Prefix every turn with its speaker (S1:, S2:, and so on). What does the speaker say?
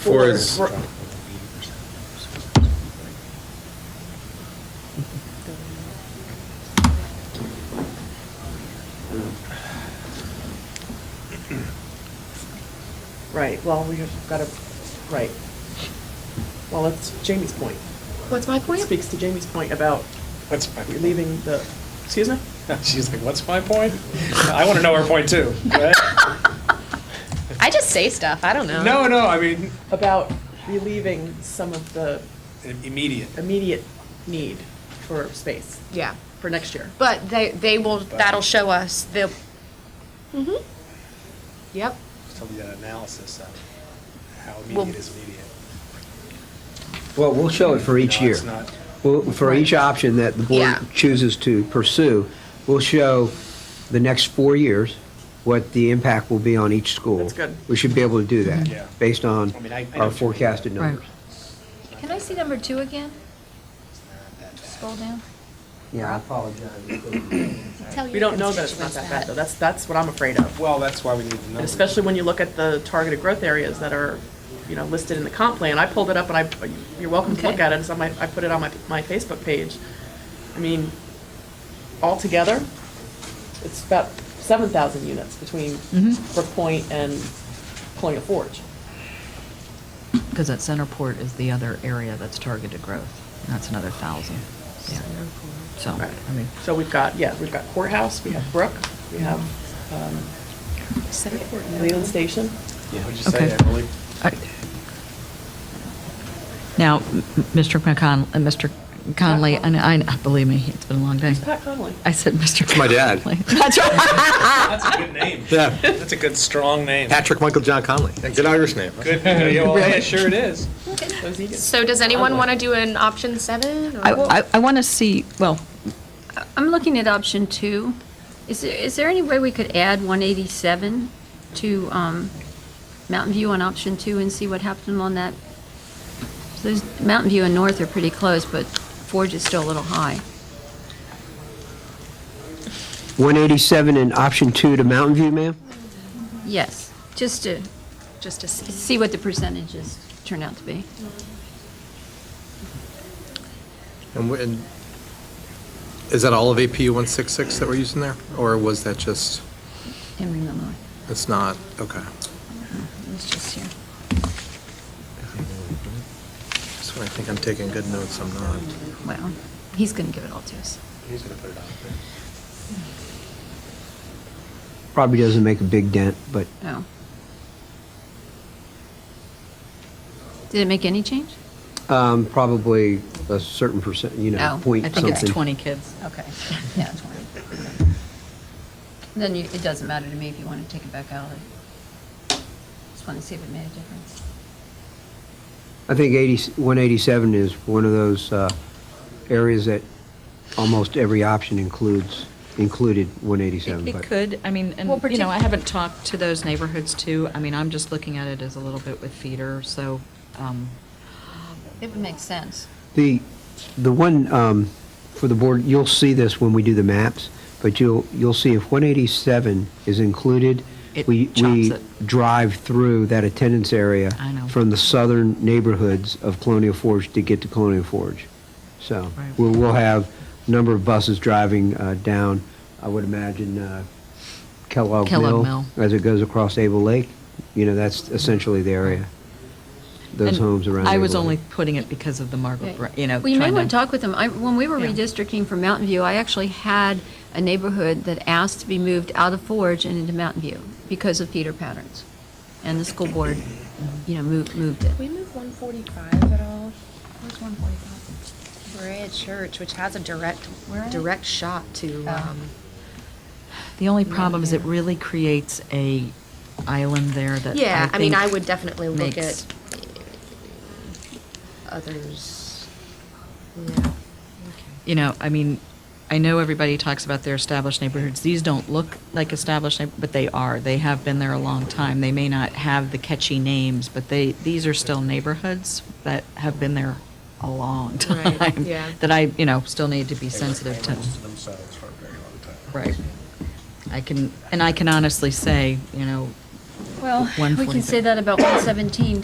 S1: Four is-
S2: Right, well, we have got to, right. Well, that's Jamie's point.
S3: What's my
S2: It speaks to Jamie's point about
S4: What's my point?
S2: leaving the, excuse me?
S4: She's like, what's my point? I want to know her point too. right?
S3: I just say stuff, I don't know.
S4: No, no, I mean,
S2: About relieving some of the
S4: immediate.
S2: immediate need for space
S3: Yeah,
S2: for next year.
S3: but they, they will, that'll show us the, mm-hmm. Yep,
S4: Tell me that analysis of how
S3: Well-
S4: immediate is immediate.
S5: Well, we'll show it for each
S4: No,
S5: year.
S4: it's not.
S5: Well, for each option that the board
S3: Yeah.
S5: chooses to pursue, we'll show the next four years what the impact will be on each school.
S2: That's good.
S5: We should be able to do that,
S4: Yeah.
S5: based on
S4: I mean, I- I know what you
S5: our
S4: mean.
S5: forecasted
S6: Right.
S5: numbers.
S7: Can I see number two again? Scroll down.
S5: Yeah, I apologize.
S7: Tell your
S2: We don't know that it's not that bad, though. That's, that's what I'm afraid of.
S4: Well, that's why we need the
S2: And
S4: numbers.
S2: especially when you look at the targeted growth areas that are, you know, listed in the comp plan. I pulled it up and I, you're welcome to look
S7: Okay.
S2: at it. It's on my, I put it on my, my Facebook page. I mean, altogether, it's about seven thousand units between
S6: Mm-hmm.
S2: Brook Point and Colonial Forge.
S6: Because that Centerport is the other area that's targeted growth, and that's another thousand. Yeah. So,
S2: Right.
S6: I mean,
S2: So we've got, yeah, we've got courthouse, we have Brook, we have, um, Leland Station.
S4: What'd you
S6: Okay.
S4: say, Emily?
S6: I- now, m- m- Mr. McCon, uh, Mr. Conley, and I, I- believe me, it's been a long day.
S2: Who's Pat Conley?
S6: I said Mr.
S8: my dad.
S6: Conley. That's right.
S4: That's a good name.
S8: Yeah,
S4: That's a good, strong name.
S8: Patrick Michael John Conley. Good Irish name.
S4: Good, well, yeah, sure it is.
S2: Those Eagles.
S3: so does anyone want to do an option seven? or-
S6: I, I, I want to see, well,
S7: I'm looking at option two. Is there, is there any way we could add 187 to um, Mountain View on option two and see what happened on that? Those, Mountain View and North are pretty close, but Forge is still a little high.
S5: 187 in option two to Mountain View, ma'am?
S7: Yes, just to
S3: Just to see.
S7: see what the percentages turn out to be.
S8: And we- and is that all of APU 166 that we're using there? Or was that just,
S7: Henry Mill North,
S8: it's not, okay.
S7: it was just here.
S8: That's when I think I'm taking good notes, I'm not.
S7: Well, he's going to give it all to us.
S4: He's gonna put it on.
S5: Probably doesn't make a big dent, but
S7: No. Did it make any change?
S5: um, probably a certain percent, you
S7: No,
S5: know,
S7: I
S5: point
S6: I
S5: something.
S6: think it's 20 kids.
S7: Okay, yeah, 20. Then you, it doesn't matter to me if you want to take it back out. I Just want to see if it made a difference.
S5: I think 80, 187 is one of those uh, areas that almost every option includes, included 187.
S6: It
S5: but-
S6: could, I mean, and,
S7: Well,
S6: you know, I
S7: partic-
S6: haven't talked to those neighborhoods too. I mean, I'm just looking at it as a little bit with feeder, so, um,
S7: It would make sense.
S5: The, the one um, for the board, you'll see this when we do the maps, but you'll, you'll see if 187 is included,
S6: It
S5: we,
S6: chops
S5: we
S6: it.
S5: drive through that attendance area
S6: I know.
S5: from the southern neighborhoods of Colonial Forge to get to Colonial Forge. So
S6: Right.
S5: we'll, we'll have a number of buses driving uh, down, I would imagine, uh, Kellogg Mill.
S6: Kellogg Mill.
S5: As it goes across Able Lake, you know, that's essentially the area, those
S6: and
S5: homes around
S6: I was
S5: Able Lake.
S6: only putting it because of the Margaret, Br- you know,
S7: Well, you may
S6: trying
S7: want to
S6: to-
S7: talk with them. I, when we were
S6: Yeah.
S7: redistricting for Mountain View, I actually had a neighborhood that asked to be moved out of Forge and into Mountain View because of feeder patterns. And the school board, you know, moved, moved it.
S3: Did we move one forty-five at all? Where's one forty-five? We're at Church, which has a direct,
S7: Where are they?
S3: direct shot to,
S7: Oh.
S3: um,
S6: The only problem is it really creates a island there that
S3: yeah, I mean,
S6: think
S3: I would definitely look
S6: makes-
S3: at others. Yeah.
S6: You know, I mean, I know everybody talks about their established neighborhoods. These don't look like established, neigh- but they are. They have been there a long time. They may not have the catchy names, but they, these are still neighborhoods that have been there a long time.
S3: Right, yeah.
S6: That I, you know, still need to be sensitive to.
S8: Themselves for a very long time.
S6: Right. I can, and I can honestly say, you know,
S7: Well, we can
S6: 145.
S7: say that about 117